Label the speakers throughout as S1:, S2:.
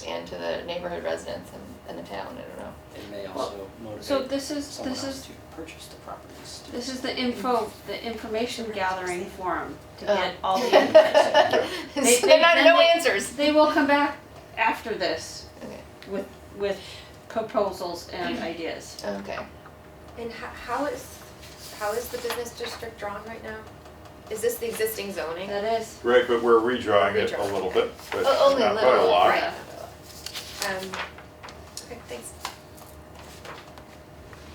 S1: to the neighborhood residents and, and the town, I don't know.
S2: It may also motivate
S3: So this is,
S2: someone
S3: this
S2: else
S3: is,
S2: to purchase the properties. too.
S3: this is the info, the information gathering forum to
S1: Oh.
S3: get all the information. They-
S1: They're not,
S3: they-
S1: no
S3: they-
S1: answers.
S3: They will come back after this
S1: Okay.
S3: with, with proposals and ideas.
S1: Okay.
S4: And ho- how is, how is the business district drawn right now? Is this the existing zoning?
S1: Uh,
S3: That is,
S5: Right, but we're redrawing it a
S4: Redrawing,
S5: little bit, but
S1: O- Oh, only a
S5: not by a
S1: little,
S5: lot.
S1: right.
S4: Um, okay, thanks.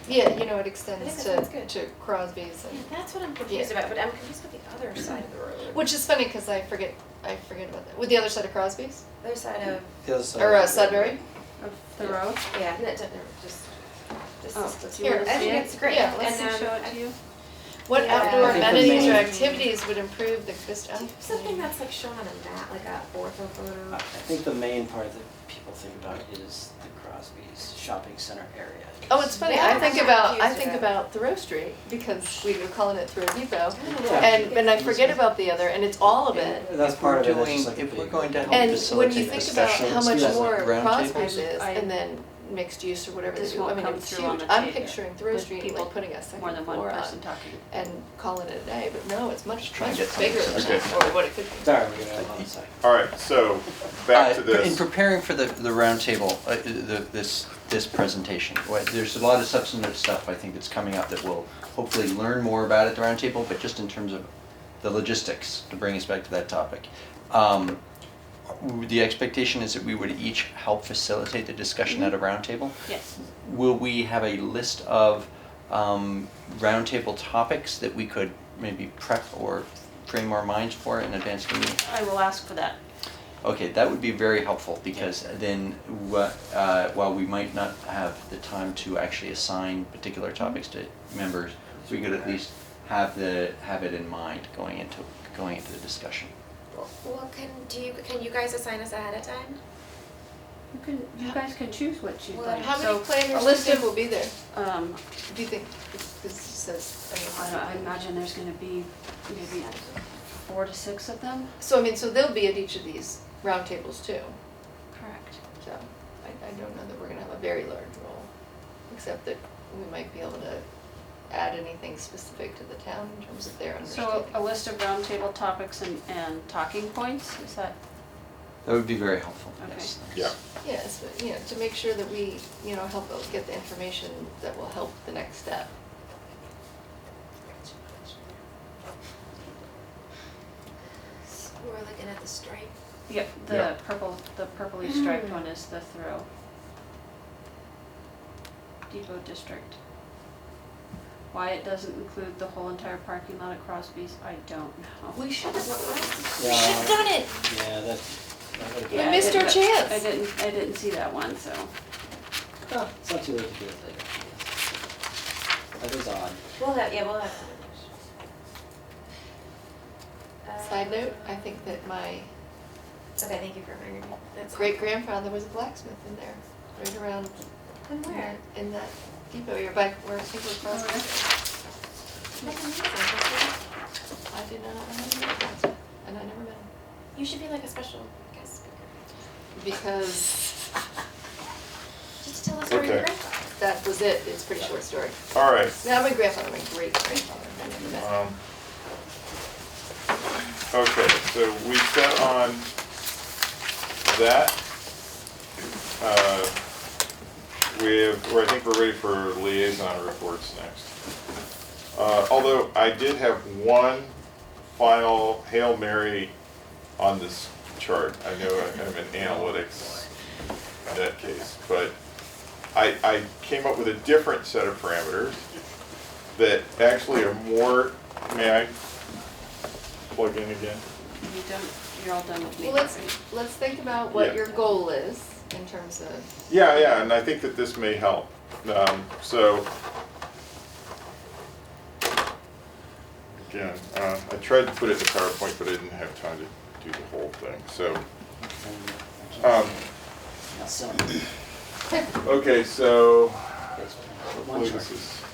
S1: Yeah, you know, it extends
S4: think
S1: to,
S4: that sounds good.
S1: to Crosby's and,
S4: Yeah, that's what I'm confused about, but I'm confused with the other side of the road.
S1: which is funny, cause I forget, I forget about that. With the other side of Crosby's,
S4: The other side of,
S2: The other side
S1: or uh,
S2: of the-
S1: Sudbury?
S3: of the road.
S4: yeah, no, don't- no, just, just.
S3: Oh,
S4: this-
S3: do you wanna
S4: I
S3: see
S4: think
S3: it?
S4: it's great.
S1: Yeah,
S3: And
S1: let's
S4: And,
S3: then
S4: um,
S3: show it to you.
S1: What
S4: Yeah.
S1: outdoor
S4: I think the
S1: amenities or
S2: main-
S1: activities would improve the
S4: Do you
S1: Christian?
S4: have something that's like shown on a map, like a ortho
S2: I I
S4: photo?
S2: think the main part that people think about is the Crosby's shopping center area.
S1: Oh, it's funny,
S4: Yeah,
S1: I
S4: I'm
S1: think
S4: not
S1: about, I
S4: confused
S1: think
S4: about
S1: about Thoreau Street, because we were calling it Thoreau Depot.
S4: I don't know.
S2: Yeah.
S1: And, and I forget about the other, and it's all of it.
S2: And That's
S6: If
S2: part of
S6: we're
S2: it, that's
S6: doing-
S2: just like a
S6: if we're
S2: big-
S6: going to help
S1: And when you
S6: facilitate
S1: think
S6: the
S1: about
S6: sessions,
S1: how much
S6: yes, like
S1: more
S6: round
S1: Crosby's
S6: tables.
S1: is,
S3: I-
S1: and then mixed use or whatever they
S3: This
S1: do, I
S3: won't
S1: mean,
S3: come
S1: it's huge.
S3: through on the
S1: I'm
S3: tape
S1: picturing Thoreau
S3: with
S1: Street
S3: people-
S1: like putting a second
S3: More than one
S1: floor Uh, on
S3: person talking.
S1: and calling it a day, but no, it's much,
S6: Try and
S1: much
S6: get some
S1: bigger than
S6: success.
S1: that, or what it could be.
S2: Sorry, we're gonna have a side.
S5: All right, so back to
S6: Uh, In
S5: this.
S6: preparing for the, the roundtable, uh, the, this, this presentation, what- there's a lot of substantive stuff I think that's coming up that we'll hopefully learn more about at the roundtable, but just in terms of the logistics, to bring us back to that topic. Um, w- The expectation is that we would each help facilitate the discussion at a roundtable.
S3: Yes.
S6: Will we have a list of um, roundtable topics that we could maybe prep or frame our minds for in advance of the meeting?
S3: I will ask for that.
S6: Okay, that would be very helpful because then wha- uh, while we might not have the time to actually assign particular topics to members, we could at least have the, have it in mind going into, going into the discussion.
S4: Well, well, can, do you, can you guys assign us ahead of time?
S3: You can, you guys can choose what you'd
S4: Well,
S3: like.
S1: How
S3: So,
S1: many planners
S3: a
S1: do you
S3: list
S1: think
S3: of-
S1: will be there,
S3: Um,
S1: do you think? Because it says,
S3: I
S1: I
S3: I
S1: don't know.
S3: imagine there's gonna be maybe four to six of them.
S1: So I mean, so they'll be at each of these roundtables too,
S3: Correct.
S1: so I, I don't know that we're gonna have a very large role, except that we might be able to add anything specific to the town in terms of their
S3: So
S1: understanding.
S3: a list of roundtable topics and, and talking points, is that,
S6: That would be very helpful,
S3: Okay.
S6: yes. thanks.
S5: Yeah.
S1: Yes, but, you know, to make sure that we, you know, help us get the information that will help the next step.
S4: We're looking at the stripe.
S3: yep, the
S6: Yeah.
S3: purple, the purpley striped
S4: Mm.
S3: one is the Thoreau. Depot District. Why it doesn't include the whole entire parking lot at Crosby's, I don't know.
S1: We should have,
S2: we
S1: we
S2: should've
S1: should have
S2: done
S1: done it.
S2: Yeah, that, that would be.
S1: We
S3: Yeah, I
S1: missed
S3: didn't-
S1: our chance.
S3: I didn't, I didn't see that one, so.
S2: Huh,
S1: Oh.
S2: It's not too late to do it later. That is odd.
S4: We'll have, yeah, we'll have. Uh,
S1: Side note, I think that my
S4: Okay, thank you for reminding me. That's
S1: great grandfather was a blacksmith in there, right around
S4: And
S1: in
S4: where?
S1: that, in that depot here, by where people cross.
S4: That's amazing. That's Oh, really-
S1: I did not, I never met a blacksmith, and I never met him,
S4: You should be like a special guest speaker,
S1: because
S4: just to tell us where your
S5: Okay.
S4: grandfather.
S1: that was it, it's a pretty short story.
S5: All right.
S1: Not my grandfather, my great grandfather, I never met him.
S5: um, Okay, so we set on that. Uh, We have, or I think we're ready for liaison reports next. Uh, Although I did have one final Hail Mary on this chart. I know I'm in analytics in that case, but I, I came up with a different set of parameters that actually are more, may I plug in again?
S3: You don't, you're all done with me.
S1: Well, let's,
S3: right?
S1: let's think about
S5: Yeah.
S1: what your goal is in terms of,
S5: Yeah, yeah, and I think that this may help. Um, so. Again, uh, I tried to put it in PowerPoint, but I didn't have time to do the whole thing, so, um,
S2: Now, some-
S5: okay, so.
S2: But
S5: Hopefully
S2: one chart.
S5: this is,